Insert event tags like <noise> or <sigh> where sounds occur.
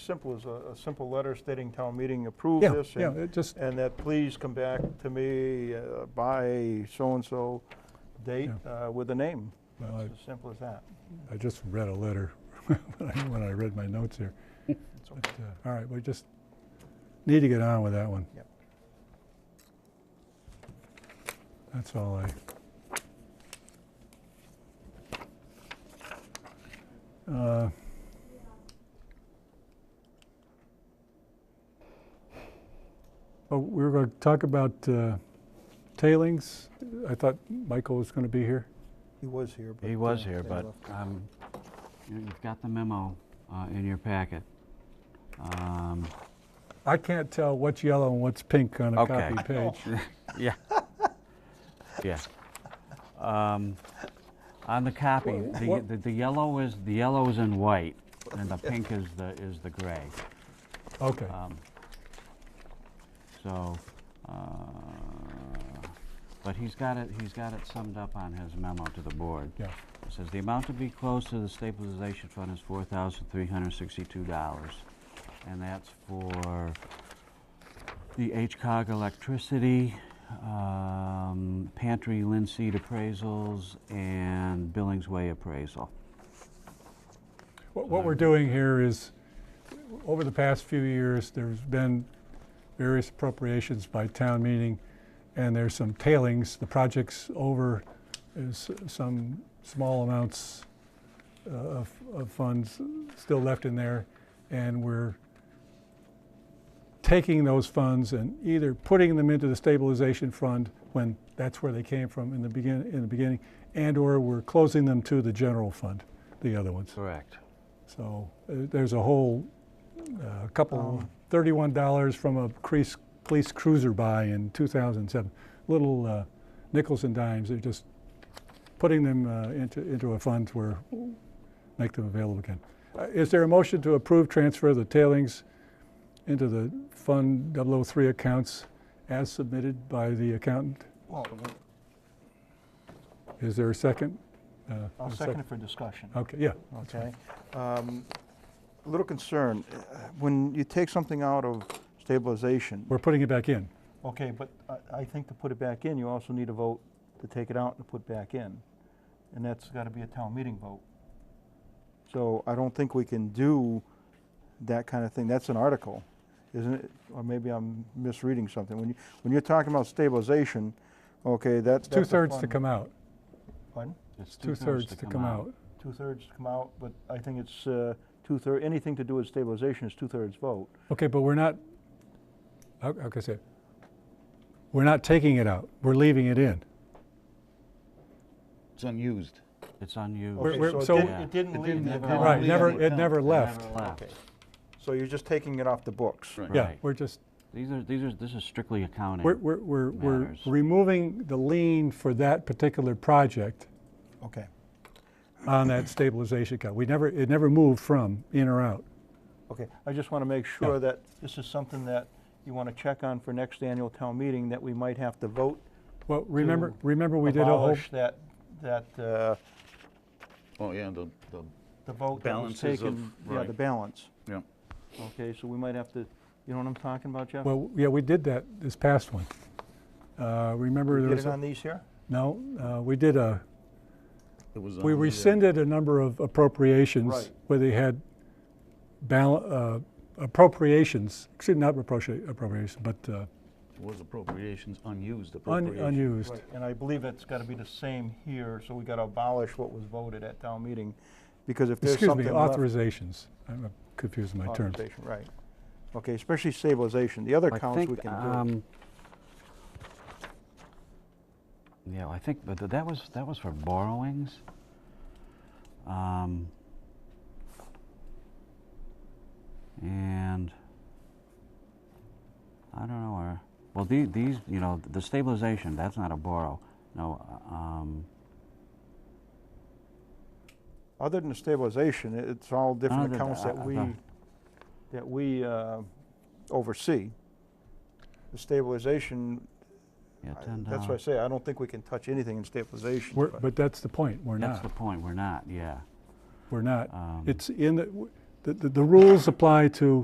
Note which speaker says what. Speaker 1: simple as a, a simple letter stating town meeting approved
Speaker 2: Yeah,
Speaker 1: this.
Speaker 2: yeah,
Speaker 1: and-
Speaker 2: it just,
Speaker 1: And that please come back to me uh, by so-and-so date uh, with a name.
Speaker 2: well, I-
Speaker 1: It's as simple as that.
Speaker 2: I just read a letter <laughs> when I- when I read my notes here. But, uh, All right, we just need to get on with that one.
Speaker 1: Yep.
Speaker 2: That's all I. Uh, Oh, we were going to talk about uh, tailings. I thought Michael was going to be here.
Speaker 1: He was here, but.
Speaker 3: He was
Speaker 1: uh,
Speaker 3: here,
Speaker 1: they
Speaker 3: but
Speaker 1: left.
Speaker 3: um, you- you've got the memo uh, in your packet. Um,
Speaker 2: I can't tell what's yellow and what's pink on a
Speaker 3: Okay.
Speaker 2: copy page.
Speaker 3: Yeah. <laughs> Yeah. Um, On the copy,
Speaker 2: Wha-
Speaker 3: the-
Speaker 2: what-
Speaker 3: the the yellow is, the yellow is in white, and the pink is the, is the gray.
Speaker 2: Okay,
Speaker 3: Um, So, uh, but he's got it, he's got it summed up on his memo to the board.
Speaker 2: yeah,
Speaker 3: It Says the amount to be closed to the stabilization fund is four thousand three hundred sixty-two dollars. And that's for the HCOG electricity, um, pantry linseed appraisals, and Billings Way appraisal.
Speaker 2: what, what we're doing here is, over the past few years, there's been various appropriations by town meeting, and there's some tailings, the project's over, is some small amounts uh, of, of funds still left in there, and we're taking those funds and either putting them into the stabilization fund when that's where they came from in the begin, in the beginning, and/or we're closing them to the general fund, the other ones.
Speaker 3: Correct.
Speaker 2: So uh, there's a whole, uh couple, thirty-one dollars from a crease- police cruiser buy in two thousand seven. Little uh, nickels and dimes, they're just putting them uh, into, into a fund where, make them available again. Uh, Is there a motion to approve transfer of the tailings into the Fund 003 accounts as submitted by the accountant?
Speaker 1: Well,
Speaker 2: Is there a second? Uh,
Speaker 1: I'll
Speaker 2: a sec-
Speaker 1: second it for discussion.
Speaker 2: Okay, yeah.
Speaker 1: Okay. Um, Little concern, uh, when you take something out of stabilization,
Speaker 2: We're putting it back in.
Speaker 1: okay, but I, I think to put it back in, you also need a vote to take it out and put back in. And that's gotta be a town meeting vote. So I don't think we can do that kind of thing. That's an article, isn't it? Or maybe I'm misreading something. When you, when you're talking about stabilization, okay, that's. that's a
Speaker 2: Two-thirds to
Speaker 1: fund-
Speaker 2: come out.
Speaker 1: Pardon?
Speaker 3: It's
Speaker 2: two-thirds to come out.
Speaker 1: Two-thirds to come out, but I think it's uh, two-thirds, anything to do with stabilization is two-thirds vote.
Speaker 2: Okay, but we're not, how how can I say, it? we're not taking it out, we're leaving it in.
Speaker 4: It's unused.
Speaker 3: It's unused.
Speaker 2: We're-
Speaker 1: Okay,
Speaker 2: we're-
Speaker 1: it
Speaker 2: so-
Speaker 1: didn't- It didn't
Speaker 4: It
Speaker 1: leave.
Speaker 4: didn't
Speaker 1: the
Speaker 3: leave
Speaker 1: town
Speaker 3: Well,
Speaker 2: Right,
Speaker 1: meeting.
Speaker 2: never,
Speaker 4: leaving it
Speaker 2: it never
Speaker 3: It
Speaker 2: left.
Speaker 3: never left.
Speaker 1: So you're just taking it off the books.
Speaker 4: Right.
Speaker 2: Yeah,
Speaker 3: Right.
Speaker 2: we're just,
Speaker 3: These are, these are, this is strictly accounting.
Speaker 2: we're, we're, we're, we're
Speaker 3: matters.
Speaker 2: removing the lien for that particular project
Speaker 1: Okay.
Speaker 2: on that stabilization account. We never, it never moved from in or out.
Speaker 1: Okay, I just want to make sure that this is something that you want to check on for next annual town meeting, that we might have to vote.
Speaker 2: Well, remember,
Speaker 1: To
Speaker 2: remember we did a whole,
Speaker 1: abolish that, that, uh,
Speaker 4: Oh, yeah, the, the,
Speaker 1: the vote that was
Speaker 4: Balances of-
Speaker 1: taken. Yeah, the
Speaker 4: right.
Speaker 1: balance.
Speaker 4: yeah.
Speaker 1: Okay, so we might have to, you know what I'm talking about, Jeff?
Speaker 2: well, yeah, we did that this past one. Uh, Remember there
Speaker 1: Get
Speaker 2: was,
Speaker 1: it
Speaker 2: a-
Speaker 1: on these here?
Speaker 2: no, uh, we did a,
Speaker 4: It was
Speaker 2: We
Speaker 4: on the, uh,
Speaker 2: rescinded a number of appropriations
Speaker 1: Right.
Speaker 2: where they had bal- uh, appropriations, excuse me, not appropria- appropriation, but uh,
Speaker 4: It was appropriations, unused
Speaker 2: un-
Speaker 4: appropriations.
Speaker 2: unused.
Speaker 1: Right, and I believe that's gotta be the same here, so we gotta abolish what was voted at town meeting, because if there's
Speaker 2: Excuse
Speaker 1: something
Speaker 2: me,
Speaker 1: left-
Speaker 2: authorizations. I'm uh, confusing my terms.
Speaker 1: Authorization, right. Okay, especially stabilization, the other
Speaker 3: I
Speaker 1: counts we
Speaker 3: think,
Speaker 1: can do.
Speaker 3: um, Yeah, I think, but that was, that was for borrowings. Um, And I don't know, or, well, the- these, you know, the stabilization, that's not a borrow. No, uh, um,
Speaker 1: Other than the stabilization, it- it's all different
Speaker 3: Other
Speaker 1: accounts
Speaker 3: than-
Speaker 1: that
Speaker 3: uh,
Speaker 1: we,
Speaker 3: uh,
Speaker 1: that we uh, oversee. The stabilization,
Speaker 3: yeah,
Speaker 1: I-
Speaker 3: $10.
Speaker 1: that's why I say, I don't think we can touch anything in stabilization.
Speaker 2: We're- But that's the point, we're
Speaker 3: That's the
Speaker 2: not,
Speaker 3: point, we're not, yeah.
Speaker 2: we're not.
Speaker 3: Um,
Speaker 2: It's in, the. the, the, the rules apply to